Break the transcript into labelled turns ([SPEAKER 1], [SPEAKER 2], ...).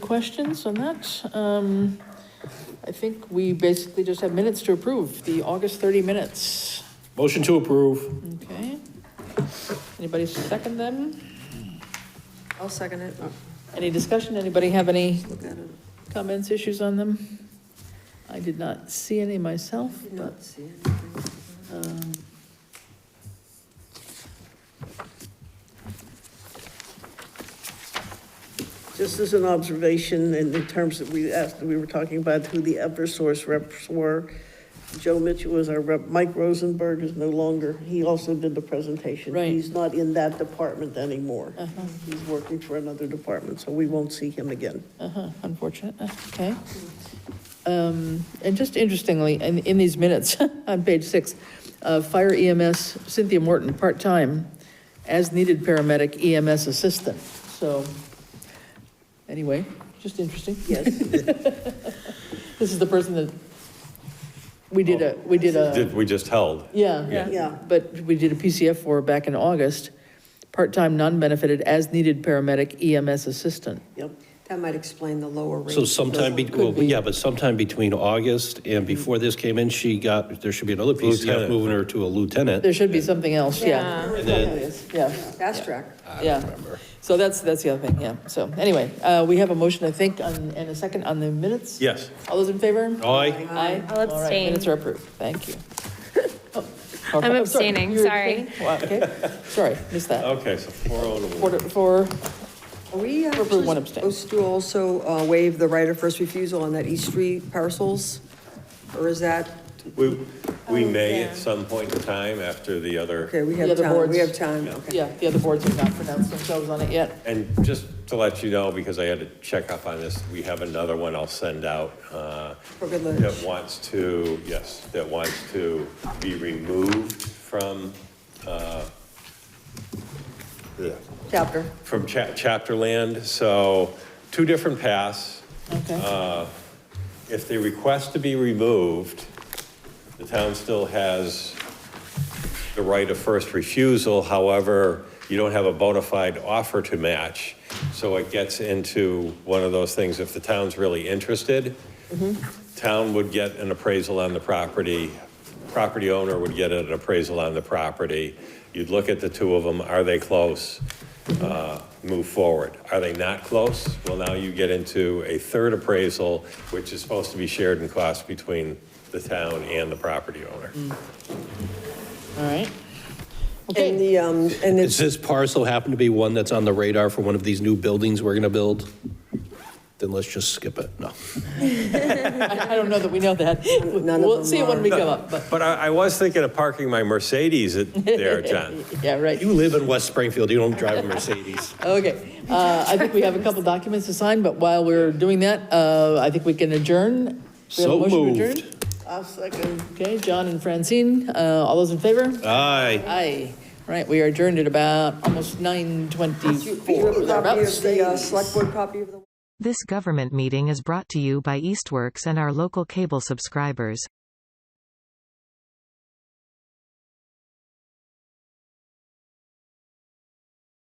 [SPEAKER 1] questions on that? Um, I think we basically just have minutes to approve, the August 30 minutes.
[SPEAKER 2] Motion to approve.
[SPEAKER 1] Okay. Anybody second them?
[SPEAKER 3] I'll second it.
[SPEAKER 1] Oh, Any discussion? Anybody have any
[SPEAKER 3] Look at it.
[SPEAKER 1] comments, issues on them? I did not see any myself,
[SPEAKER 3] Did
[SPEAKER 1] but
[SPEAKER 3] not see anything.
[SPEAKER 1] Um,
[SPEAKER 4] Just as an observation, in the terms that we asked, we were talking about who the Eversource reps were. Joe Mitchell was our rep, Mike Rosenberg is no longer, he also did the presentation.
[SPEAKER 1] Right.
[SPEAKER 4] He's not in that department anymore.
[SPEAKER 1] Uh-huh.
[SPEAKER 4] He's working for another department, so we won't see him again.
[SPEAKER 1] Uh-huh, unfortunate, uh, okay. Um, And just interestingly, in, in these minutes, on page six, uh, fire EMS Cynthia Morton, part-time, as-needed paramedic EMS assistant, so, anyway, just interesting.
[SPEAKER 4] Yes,
[SPEAKER 1] This is the person that, we did a, we did a,
[SPEAKER 5] Did, we just held.
[SPEAKER 1] yeah.
[SPEAKER 4] yeah.
[SPEAKER 1] But we did a PCF for her back in August, part-time, non-benefited, as-needed paramedic EMS assistant.
[SPEAKER 4] Yep.
[SPEAKER 3] That might explain the lower rate.
[SPEAKER 2] So sometime, be- well, yeah, but sometime between August and before this came in, she got, there should be another PCF
[SPEAKER 5] Lieutenant.
[SPEAKER 2] moving her to a lieutenant.
[SPEAKER 1] There should be something else, yeah.
[SPEAKER 2] And then,
[SPEAKER 1] Yeah.
[SPEAKER 3] Fast track.
[SPEAKER 1] Yeah. So that's, that's the other thing, yeah. So anyway, uh, we have a motion, I think, on- and a second on the minutes?
[SPEAKER 5] Yes.
[SPEAKER 1] All those in favor?
[SPEAKER 2] aye,
[SPEAKER 1] Aye. All
[SPEAKER 6] I'll
[SPEAKER 1] right,
[SPEAKER 6] abstain.
[SPEAKER 1] Minutes are approved, thank you. Oh,
[SPEAKER 6] I'm abstaining,
[SPEAKER 1] You're
[SPEAKER 6] sorry.
[SPEAKER 1] abstaining? Wow, okay, sorry, missed that.
[SPEAKER 5] Okay, so four oh to one.
[SPEAKER 1] Four, four,
[SPEAKER 3] Are we uh,
[SPEAKER 1] Approve
[SPEAKER 3] actually
[SPEAKER 1] one abstain.
[SPEAKER 3] supposed to also uh, waive the right of first refusal on that East Street parcels? Or is that,
[SPEAKER 5] We, we may at some point in time after
[SPEAKER 3] okay,
[SPEAKER 5] the other,
[SPEAKER 3] we
[SPEAKER 1] The
[SPEAKER 3] have
[SPEAKER 1] other
[SPEAKER 3] time, we
[SPEAKER 1] boards.
[SPEAKER 3] have time, okay.
[SPEAKER 1] yeah, the other boards have not pronounced themselves on it yet.
[SPEAKER 5] and just to let you know, because I had to check up on this, we have another one I'll send out, uh,
[SPEAKER 3] For good lunch.
[SPEAKER 5] that wants to, yes, that wants to be removed from, uh, the-
[SPEAKER 3] Chapter.
[SPEAKER 5] from cha- chapter land, so two different paths.
[SPEAKER 2] Uh.
[SPEAKER 1] Okay,
[SPEAKER 5] If they request to be removed, the town still has the right of first refusal, however, you don't have a bona fide offer to match. So it gets into one of those things, if the town's really interested, town would get an appraisal on the property, property owner would get an appraisal on the property. You'd look at the two of them, are they close? Uh, Move forward. Are they not close? Well, now you get into a third appraisal, which is supposed to be shared in cost between the town and the property owner.
[SPEAKER 1] all right.
[SPEAKER 3] And
[SPEAKER 1] Okay,
[SPEAKER 3] the, um, and
[SPEAKER 2] Does
[SPEAKER 3] it's,
[SPEAKER 2] this parcel happen to be one that's on the radar for one of these new buildings we're going to build? Then let's just skip it, no.
[SPEAKER 1] I I don't know that we know that.
[SPEAKER 3] none of
[SPEAKER 1] We'll
[SPEAKER 3] them
[SPEAKER 1] see it when
[SPEAKER 3] are.
[SPEAKER 1] we come up, but,
[SPEAKER 5] But I, I was thinking of parking my Mercedes at- there, John.
[SPEAKER 1] yeah, right.
[SPEAKER 2] You live in West Springfield, you don't drive a Mercedes.
[SPEAKER 1] Okay, uh, I think we have a couple documents to sign, but while we're doing that, uh, I think we can adjourn. We have a
[SPEAKER 2] So
[SPEAKER 1] motion to
[SPEAKER 2] moved.
[SPEAKER 1] adjourn?
[SPEAKER 4] I'll second.
[SPEAKER 1] Okay, John and Francine, uh, all those in favor?
[SPEAKER 2] Aye.
[SPEAKER 1] Aye. All right, we are adjourned at about almost nine
[SPEAKER 3] do you
[SPEAKER 1] twenty-four.
[SPEAKER 3] have a copy of the uh, select board copy of the
[SPEAKER 7] This government meeting is brought to you by Eastworks and our local cable subscribers.